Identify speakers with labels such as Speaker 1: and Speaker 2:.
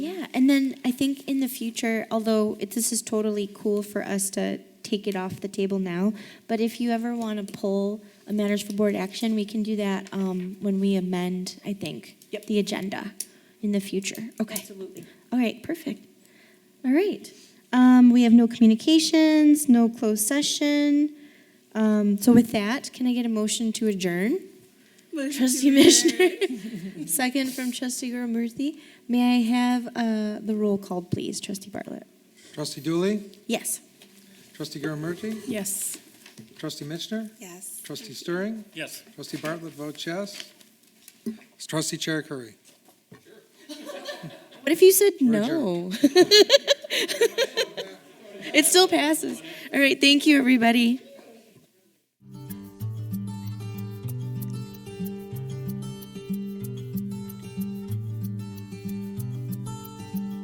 Speaker 1: and then I think in the future, although it, this is totally cool for us to take it off the table now, but if you ever want to pull a matters for board action, we can do that um, when we amend, I think,
Speaker 2: Yep.
Speaker 1: the agenda in the future. Okay.
Speaker 2: Absolutely.
Speaker 1: All right, perfect. All right. Um, we have no communications, no closed session. Um, so with that, can I get a motion to adjourn? Trustee Mishner. Second from Trustee Gurumurthy. May I have uh, the roll called, please, Trustee Bartlett?
Speaker 3: Trustee Dooley,
Speaker 1: Yes.
Speaker 3: Trustee Garamurti,
Speaker 2: Yes.
Speaker 3: Trustee Mitchner,
Speaker 2: Yes.
Speaker 3: Trustee Stirring,
Speaker 4: Yes.
Speaker 3: Trustee Bartlett votes yes. Trustee Chair Curry.
Speaker 1: What if you said
Speaker 3: We're
Speaker 1: no? it still passes. All right, thank you, everybody.